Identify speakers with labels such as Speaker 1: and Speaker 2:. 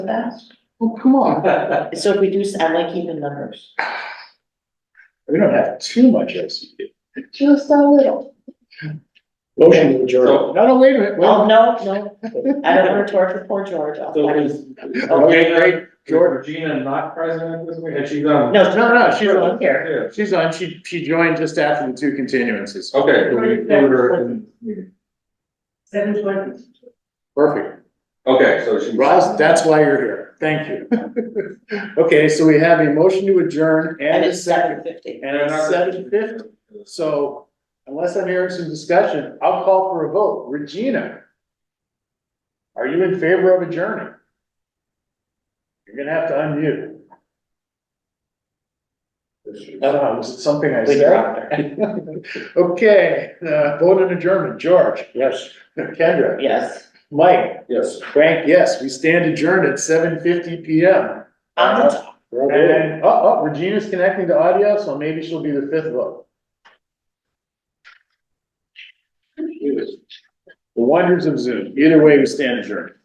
Speaker 1: for that.
Speaker 2: Well, come on.
Speaker 1: So if we do, s- I like even numbers.
Speaker 3: We don't have too much E LCD.
Speaker 2: Just a little.
Speaker 3: Motion to adjourn.
Speaker 4: So-
Speaker 3: No, no, wait a minute. wait
Speaker 1: Oh,
Speaker 3: a
Speaker 1: no, no, I don't want to torture poor George. I'll
Speaker 4: So
Speaker 1: find him.
Speaker 4: is.
Speaker 3: Okay, great.
Speaker 4: Regina- is Regina not present this week, and she's um, on?
Speaker 1: No,
Speaker 3: minute. No, no, she's on.
Speaker 1: here.
Speaker 4: Yeah,
Speaker 3: She's on. She, she joined just after the two continuances.
Speaker 4: okay, we include her in-
Speaker 1: Seven twenty.
Speaker 3: Perfect.
Speaker 4: okay, so she.
Speaker 3: Roz, that's why you're here. Thank you. Okay, so we have a motion to adjourn
Speaker 1: And
Speaker 3: and a
Speaker 1: it's seven
Speaker 3: second.
Speaker 1: fifty.
Speaker 3: And it's seven fifty. So unless I'm hearing some discussion, I'll call for a vote. Regina. Are you in favor of adjourning? You're gonna have to unmute. I don't know, was it uh, something I
Speaker 1: We
Speaker 3: said?
Speaker 1: dropped her.
Speaker 3: Okay, uh, vote in adjournment. George? Yes. Kendra?
Speaker 1: Yes.
Speaker 3: Mike?
Speaker 4: Yes.
Speaker 3: Frank, yes. We stand adjourned at seven fifty P M.
Speaker 1: On the top.
Speaker 3: And, oh, oh, Regina's connecting to audio, so maybe she'll be the fifth vote. The wonders of Zoom. Either way, we stand adjourned.